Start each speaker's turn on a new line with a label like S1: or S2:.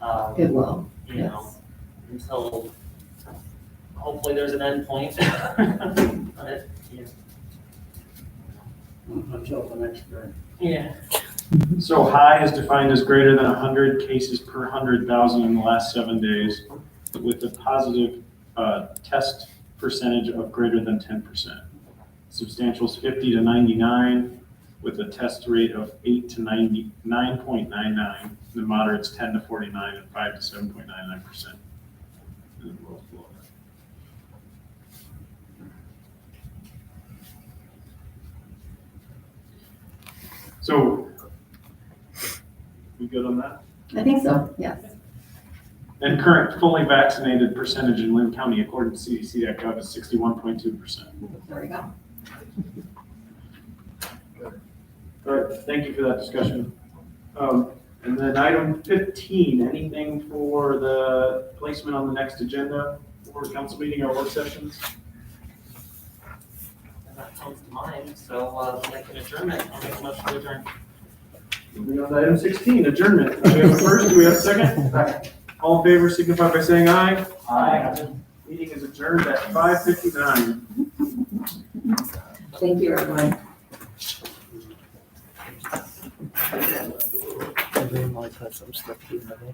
S1: um,
S2: It will,
S1: You know,
S2: yes.
S1: until hopefully there's an end point. But, yeah.
S3: until the next grade.
S1: Yeah,
S4: So high is defined as greater than 100 cases per 100,000 in the last seven days with a positive uh, test percentage of greater than 10%. Substantial is 50 to 99 with a test rate of 8 to 99.99. The moderate's 10 to 49 and 5 to 7.99%. And the lowest below that. So we good on that?
S2: I think so, yes.
S4: And current fully vaccinated percentage in Lynn County according to CDC.gov is sixty-one point two percent.
S2: There we go.
S4: All right, thank you for that discussion. Um, and then item fifteen, anything for the placement on the next agenda for council meeting or work sessions?
S1: and that comes to mind, so, uh, like an adjournment, I'll make a motion to adjourn.
S4: Moving on to item sixteen, adjournment. Do we have a first, do we have a second? All in favor signify by saying aye. Meeting is adjourned at five fifty-nine.
S2: Thank you, everyone.
S3: I didn't like that some stuff, you know.